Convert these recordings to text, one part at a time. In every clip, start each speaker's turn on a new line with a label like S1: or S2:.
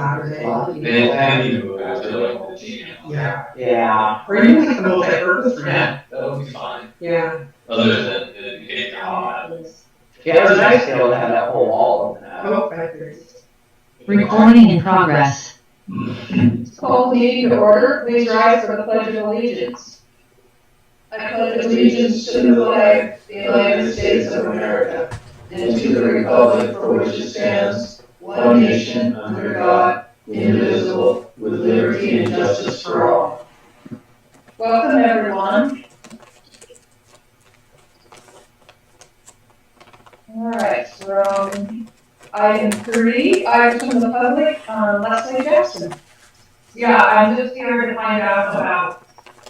S1: Well,
S2: They-
S3: They didn't have any.
S2: Yeah,
S1: Yeah.
S2: or you make the most effort for that,
S3: That would be fine,
S2: yeah.
S3: other than, than getting down.
S1: Yeah, it was nice to be able to have that whole wall open up.
S2: Oh, back there.
S4: Recording in progress.
S5: Call the meeting to order, please rise for the pledge of allegiance. I pledge allegiance to the flag, of the United States of America, and to the republic for which it stands, one nation, under God, indivisible, with liberty and justice for all. Welcome, everyone. All right, so um, item three, items from the public, um, Leslie Jackson.
S6: Yeah, I'm just here to find out about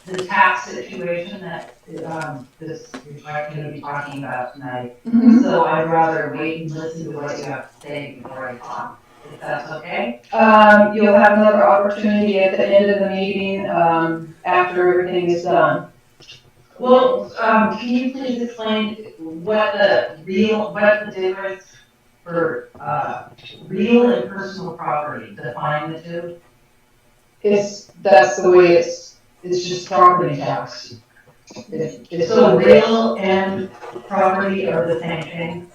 S6: the tax situation that, um, this, you're going to be talking about tonight. So I'd rather wait and listen to what you have to say before I talk, if that's okay?
S5: Um, you'll have another opportunity at the end of the meeting, um, after everything is done.
S6: Well, um, can you please explain what the real, what the difference for, uh, real and personal property, define the two?
S5: It's, that's the way it's, it's just property tax. It- It's
S6: So
S5: so
S6: real and property are the same thing?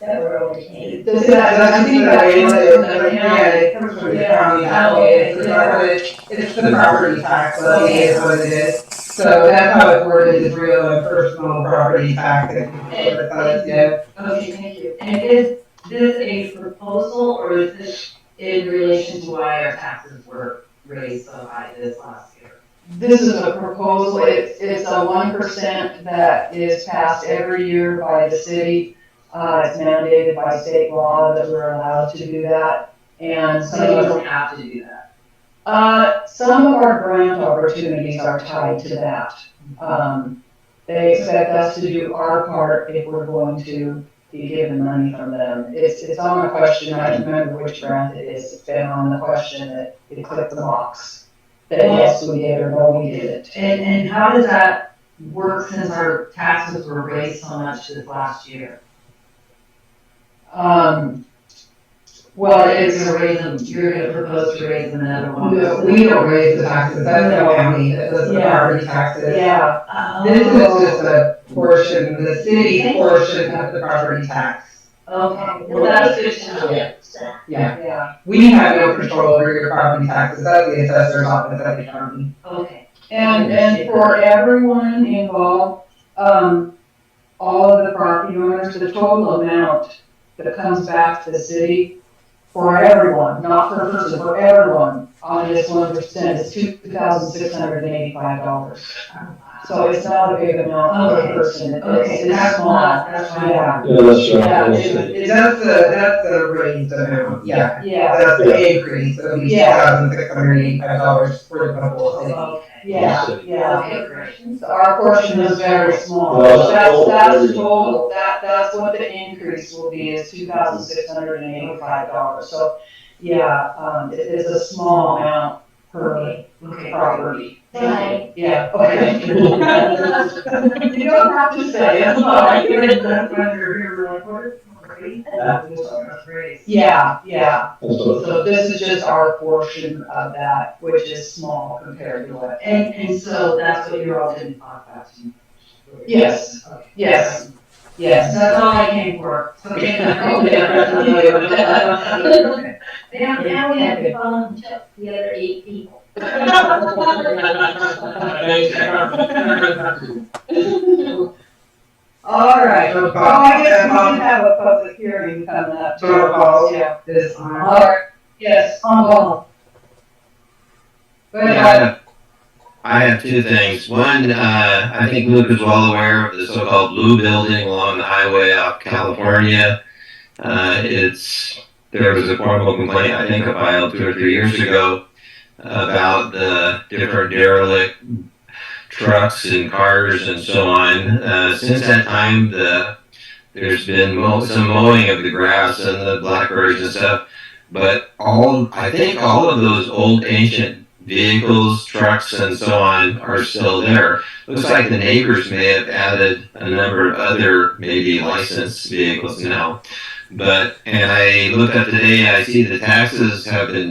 S5: That really
S6: can't.
S5: Does that, I think that way that,
S2: Yeah, it comes from the county, that
S5: Oh,
S2: way, it's not, it's, it's the property tax, so it is what it is. So that's how it worded, is real and personal property tax, and what it was, yeah.
S6: Okay, thank you. And is this a proposal or is this in relation to why our taxes were raised so high this last year?
S5: this is a proposal, it's, it's a one percent that is passed every year by the city. Uh, it's mandated by state law that we're allowed to do that, and so.
S6: So you don't have to do that.
S5: Uh, some of our grant opportunities are tied to that. Um, they expect us to do our part if we're going to be given money from them. It's, it's on a question, I don't remember which grant it is, it's been on the question that you click the box. That yes, we did or no, we didn't.
S6: And, and how does that work since our taxes were raised so much this last year?
S5: Um, well,
S6: You're
S5: it's,
S6: gonna raise them, you're gonna propose to raise them another one.
S2: No, we don't raise the taxes, that's the county, that does the
S5: Yeah.
S2: property taxes.
S5: yeah,
S2: This is
S6: Oh,
S2: just a portion, the city portion of the property tax.
S6: okay, well, that's good to know.
S2: Yeah,
S5: yeah.
S2: we have no control over your property taxes, that's the assessor's office at the county.
S6: Okay,
S5: And, and for everyone involved, um, all of the property owners, the total amount that comes back to the city for everyone, not per person, for everyone, on this one percent is two thousand six hundred and eighty-five dollars. So it's not a big amount per
S6: Okay.
S5: person, it's,
S6: okay,
S5: it's
S6: that's
S5: small.
S6: not, that's why.
S5: Yeah,
S7: Yeah, that's
S5: Yeah,
S7: right.
S5: it-
S7: That's-
S5: it's,
S2: That's the, that's the raised amount, yeah.
S5: yeah,
S2: That's the increase, it'll be two
S5: Yeah.
S2: thousand six hundred eighty-five dollars for the whole city.
S6: Okay,
S5: yeah, yeah.
S6: okay, great.
S5: So Our portion is very small,
S7: Well, that's
S5: that's,
S7: total,
S5: that's
S7: everything.
S5: total, that, that's what the increase will be, is two thousand six hundred and eighty-five dollars, so, yeah, um, it is a small amount per
S6: Okay.
S5: property.
S6: Right.
S5: Yeah, okay. You don't have to say, it's
S6: I
S5: fine.
S6: heard that when you're here, we're like, what is race? That's race.
S5: Yeah, yeah,
S7: that's right.
S5: so this is just our portion of that, which is small compared to what.
S6: And, and so that's what you're all gonna talk about. tonight.
S5: Yes,
S6: Okay.
S5: yes,
S6: So
S5: yes.
S6: That's all I came for. So thank you.
S5: Okay.
S6: Now, now we have to
S8: phone to the other eight people.
S5: All right,
S2: No
S5: oh, I guess we
S2: problem.
S5: can have a public hearing coming up. too.
S2: No problem.
S5: Yeah.
S2: This on.
S5: All right, yes, on ball. But,
S9: Yeah, I
S5: uh,
S9: have- I have two things. One, uh, I think Luke is well aware of the so-called blue building along the highway out California. Uh, it's, there was a formal complaint, I think, filed two or three years ago about the different derelict trucks and cars and so on. Uh, since that time, the, there's been mo- some mowing of the grass and the blackberries and stuff. But all, I think all of those old ancient vehicles, trucks, and so on are still there. Looks like the neighbors may have added a number of other maybe licensed vehicles now. But, and I looked up today, I see the taxes have been